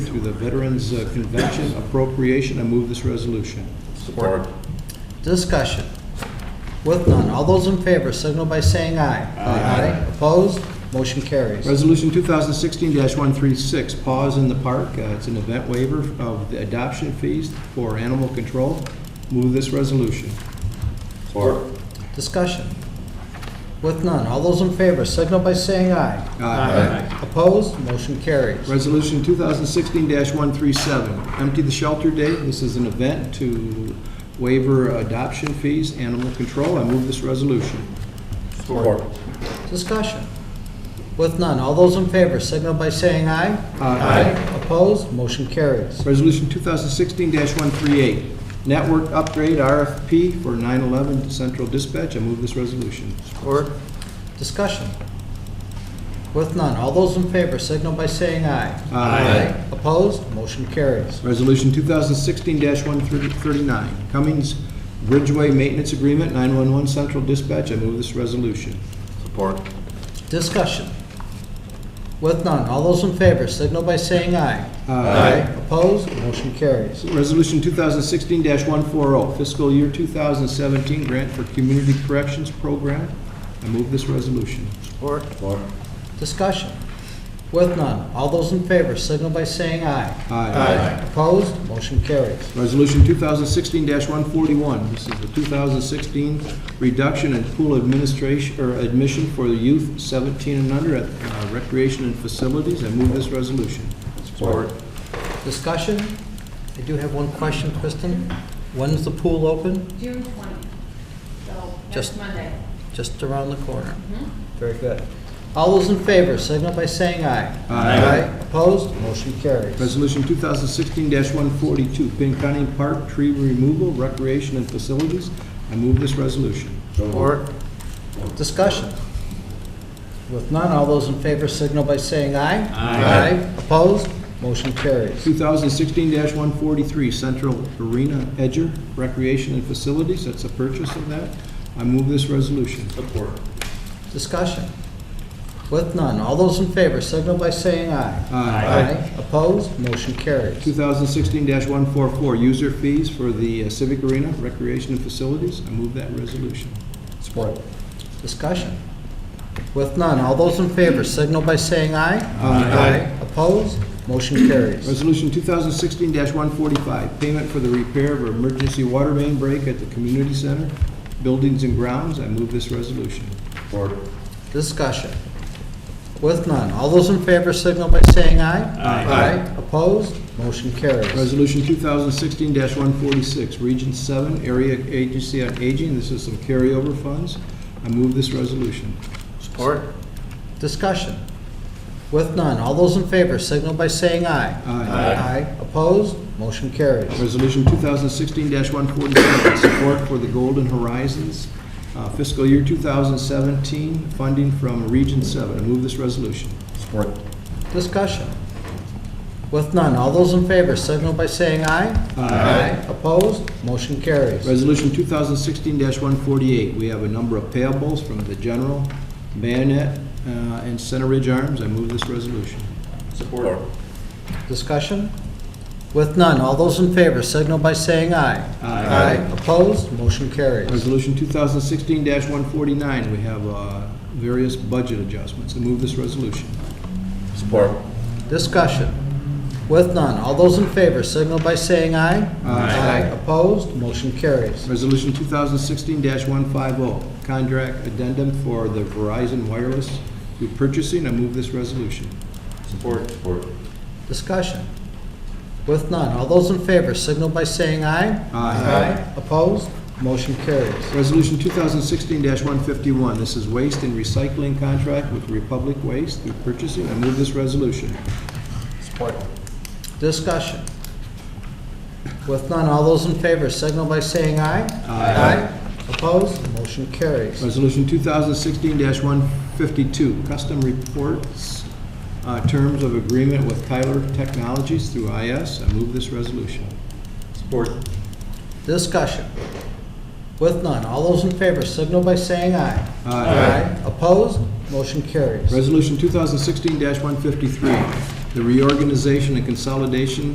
to the Veterans uh, Convention appropriation. I move this resolution. Support. Discussion. With none, all those in favor signal by saying aye. Aye. Opposed? Motion carries. Resolution 2016-136, Paws in the Park. Uh, It's an event waiver of the adoption fees for animal control. Move this resolution. Support. Discussion. With none, all those in favor signal by saying aye. Aye. Opposed? Motion carries. Uh, Resolution 2016-137, Empty the Shelter Day. This is an event to waiver adoption fees, animal control. I move this resolution. Support. Discussion. With none, all those in favor signal by saying aye. Aye. Opposed? Motion carries. Resolution 2016-138, Network Upgrade RFP for 911 Central Dispatch. I move this resolution. Support. Discussion. With none, all those in favor signal by saying aye. Aye. Opposed? Motion carries. Resolution 2016-139, Cummings Bridgeway Maintenance Agreement, 911 Central Dispatch. I move this resolution. Support. Discussion. With none, all those in favor signal by saying aye. Opposed? Motion carries. Resolution 2016-140, fiscal year 2017 grant for community corrections program. I move this resolution. Support. Support. Discussion. With none, all those in favor signal by saying aye. Opposed? Motion carries. Resolution 2016-141, this is the 2016 reduction in pool administration, or admission for the youth 17 and under at uh, recreation and facilities. I move this resolution. Support. Discussion. I do have one question, Kristen. When's the pool open? June twentieth, so Just- next Monday. Just around the corner. Very good. All those in favor signal by saying aye. Aye. Opposed? Motion carries. Resolution 2016-142, Pin County Park tree removal, recreation and facilities. I move this resolution. Support. Discussion. With none, all those in favor signal by saying aye. Aye. Opposed? Motion carries. 2016-143, Central Arena Edger, recreation and facilities. That's a purchase of that. I move this resolution. Support. Discussion. With none, all those in favor signal by saying aye. Aye. Opposed? Motion carries. 2016-144, user fees for the uh, Civic Arena Recreation and Facilities. I move that resolution. Support. Discussion. With none, all those in favor signal by saying aye. Aye. Opposed? Motion carries. Resolution 2016-145, payment for the repair of emergency water main break at the community center, buildings and grounds. I move this resolution. Support. Discussion. With none, all those in favor signal by saying aye. Aye. Opposed? Motion carries. Resolution 2016-146, Region 7 Area Agency on Aging. This is some carryover funds. I move this resolution. Support. Discussion. With none, all those in favor signal by saying aye. Aye. Opposed? Motion carries. Resolution 2016-147, support for the Golden Horizons uh, fiscal year 2017, funding from Region 7. I move this resolution. Support. Discussion. With none, all those in favor signal by saying aye. Opposed? Motion carries. Resolution 2016-148, we have a number of payables from the General, Bayonet, uh, and Center Ridge Arms. I move this resolution. Support. Discussion? With none, all those in favor signal by saying aye. Aye. Opposed? Motion carries. Resolution 2016-149, we have uh, various budget adjustments. I move this resolution. Support. Discussion? With none, all those in favor signal by saying aye. Opposed? Motion carries. Resolution 2016-150, oh, contract addendum for the Verizon Wireless through purchasing. I move this resolution. Support. Support. Discussion? With none, all those in favor signal by saying aye. Opposed? Motion carries. Resolution 2016-151, this is waste and recycling contract with Republic Waste through purchasing. I move this resolution. Support. Discussion? With none, all those in favor signal by saying aye. Opposed? Motion carries. Resolution 2016-152, custom reports, uh, terms of agreement with Tyler Technologies through IS. I move this resolution. Support. Discussion. With none, all those in favor signal by saying aye. Aye. Opposed? Motion carries. Resolution 2016-153, the reorganization and consolidation